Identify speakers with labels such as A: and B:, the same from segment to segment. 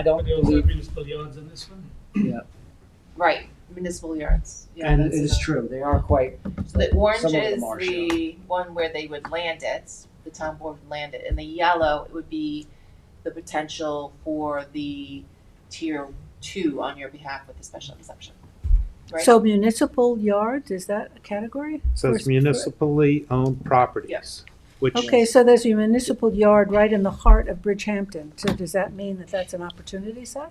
A: I don't
B: There was
A: believe,
B: municipal yards in this one?
A: yeah,
C: Right, municipal yards. Yeah,
A: and it
C: that's
A: is
C: another-
A: true, they are quite,
C: So the orange
A: Some of
C: is
A: them are
C: the one where they would land it, the town board would land it, and the yellow it would be the potential for the tier two on your behalf with the special exception. Right?
D: So municipal yards, is that a category?
E: So
D: Or
E: it's
D: is-
E: municipally owned properties, which,
D: Okay, so there's a municipal yard right in the heart of Bridgehampton. So does that mean that that's an opportunity site?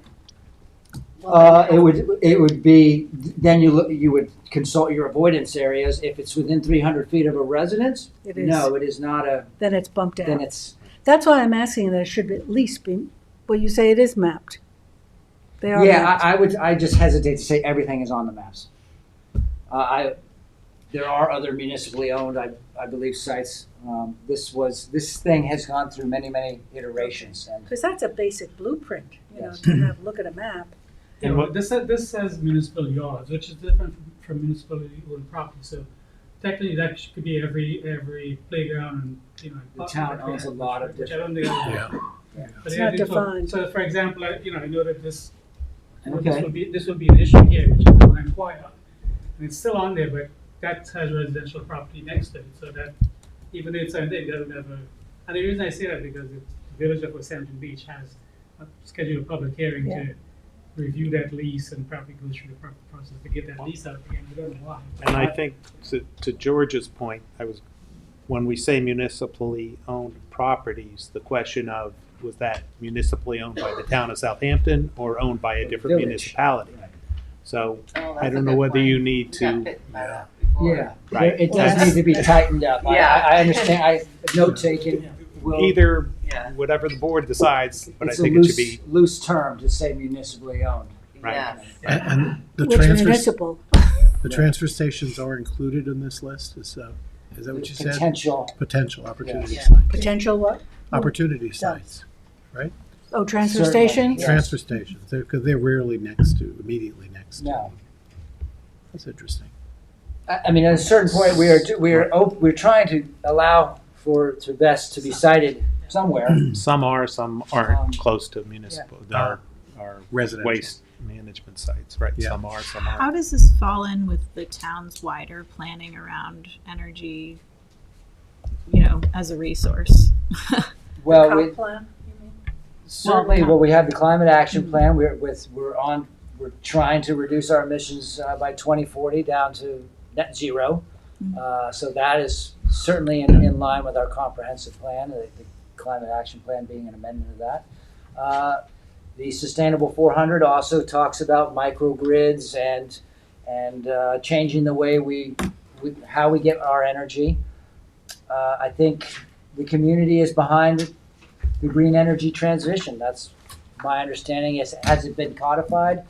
C: Well,
A: uh,
C: then
A: it would, it would be, then you look, you would consult your avoidance areas, if it's within three hundred feet of a residence,
D: It is,
A: no, it is not a,
D: then it's bumped
A: then
D: out.
A: it's,
D: That's why I'm asking that it should at least be, well, you say it is mapped. They are
A: yeah,
D: mapped.
A: I, I would, I just hesitate to say everything is on the maps. Uh, I, there are other municipally owned, I, I believe sites, um, this was, this thing has gone through many, many iterations and
D: Because that's a basic blueprint, you know,
A: Yes.
D: to have, look at a map.
E: And
B: No,
E: what-
B: This, sa- this says municipal yards, which is different from- from municipally owned property, so technically that sh- could be every, every playground and, you know.
A: The town owns a lot of
B: Which I don't think. Yeah.
D: It's not defined.
B: So for example, I- you know, I know that this, you know, this
A: Okay.
B: will be, this will be an issue here, which is the land quiet. And it's still on there, but that has residential property next to it, so that even though it's on there, it doesn't have a, and the reason I say that because the village of West Hampton Beach has a scheduled public hearing to review that lease and probably go through the proper process to get that lease out again, we don't know why.
E: and I think to, to George's point, I was, when we say municipally owned properties, the question of, was that municipally owned by the town of Southampton or owned by a different
A: Village.
E: municipality?
A: Right.
E: So
C: Oh, that's
E: I
C: a
E: don't know
C: good
E: whether
C: point.
E: you need
C: Yeah,
E: to,
C: fit that up before.
A: Yeah,
E: Right.
A: it does need to be tightened up. I,
C: Yeah.
A: I I understand, I, note taking will,
E: either,
C: Yeah,
E: whatever the board decides, but I
A: it's a
E: think it should
A: loose,
E: be,
A: loose term to say municipally owned.
E: Right.
C: yes.
F: And, and the
D: Which
F: transfer,
D: municipal,
F: the transfer stations are included in this list, is, uh, is that what you said?
A: Potential,
F: Potential opportunity
C: Yeah.
F: sites,
D: potential what?
F: opportunity sites,
D: Oh, transfer
A: Certainly,
D: stations?
A: Yes.
F: transfer stations, they're, because they're rarely next to, immediately next to.
A: no.
F: That's interesting.
A: I, I mean, at a certain point, we are, we are, op- we're trying to allow for, to best to be cited somewhere.
E: some are, some
A: Um,
E: aren't close to municipal, are, are
F: Residential.
E: waste management sites, right?
F: Yeah.
E: Some are, some aren't.
G: How does this fall in with the town's wider planning around energy, you know, as a resource?
A: Well,
D: Comp
A: we,
D: plan, you mean?
A: certainly, well, we have the climate action plan, we're with, we're on, we're trying to reduce our emissions uh, by twenty forty down to net zero. Uh, so that is certainly in, in line with our comprehensive plan, the, the climate action plan being an amendment of that. Uh, the Sustainable four hundred also talks about microgrids and, and, uh, changing the way we, we, how we get our energy. Uh, I think the community is behind the green energy transition. That's my understanding. Is has it been codified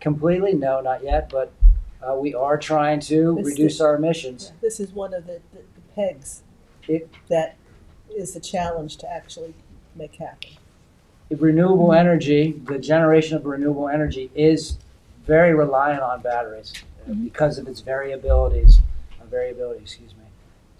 A: completely? No, not yet. But uh, we are trying to
H: This is-
A: reduce our emissions.
H: This is one of the, the the pegs
A: It-
H: that is a challenge to actually make happen.
A: Renewable energy, the generation of renewable energy, is very reliant on batteries uh,
D: Mm-hmm.
A: because of its variabilities. Uh, variability, excuse me.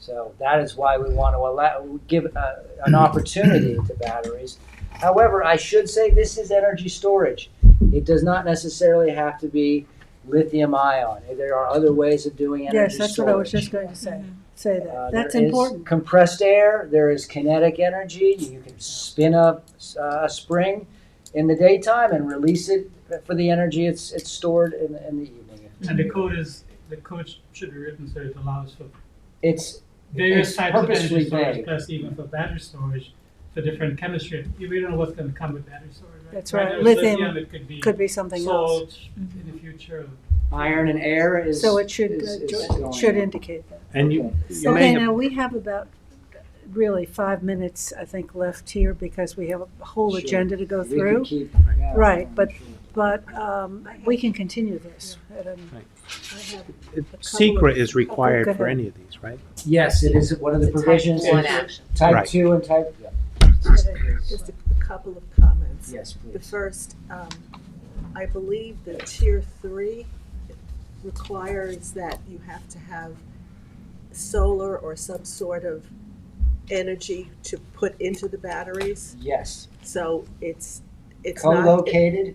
A: So that is why we want to allow give uh,
D: Mm-hmm.
A: an opportunity to batteries. However, I should say this is energy storage. It does not necessarily have to be lithium ion. There are other ways of doing energy
D: Yes, that's what I was
A: storage.
D: just going to say, say
A: Uh,
D: that. That's
A: there is
D: important.
A: compressed air. There is kinetic energy. You can spin up uh, a spring in the daytime and release it for the energy it's it's stored in, in the evening.
B: And the code is, the code sh- should be written so it allows for
A: It's
B: various
A: It's
B: types of energy
A: purposely
B: storage,
A: vague.
B: plus even for battery storage, for different chemistry. You really don't know what's gonna come with battery storage, right?
D: That's right.
B: now it's
D: Lithium
B: it could be
D: Could be something else.
B: salt in the future.
A: iron and air is
D: So it should,
A: is-
D: uh,
A: is
D: jo-
A: going
D: should
A: up.
D: indicate that.
E: And you,
A: Okay.
E: you may
D: Okay,
E: have
D: now, we have about, really, five minutes, I think, left here because we have a whole
A: Sure.
D: agenda to go
A: We could
D: through.
A: keep- yeah,
D: Right,
A: I'm
D: but-
A: sure.
D: But um, we can continue this. at an-
E: Secret is required
D: go
E: for
D: ahead.
E: any of these, right?
A: yes, it is one of the
H: It's a type
A: provisions.
C: One
B: Right.
C: action.
A: Type
E: Right.
A: two and type
H: Just a a couple of comments.
A: yes,
H: The
A: please.
H: first, um, I believe that tier three requires that you have to have solar or some sort of energy to put into the batteries.
A: Yes,
H: So it's, it's not. it-
A: co-located?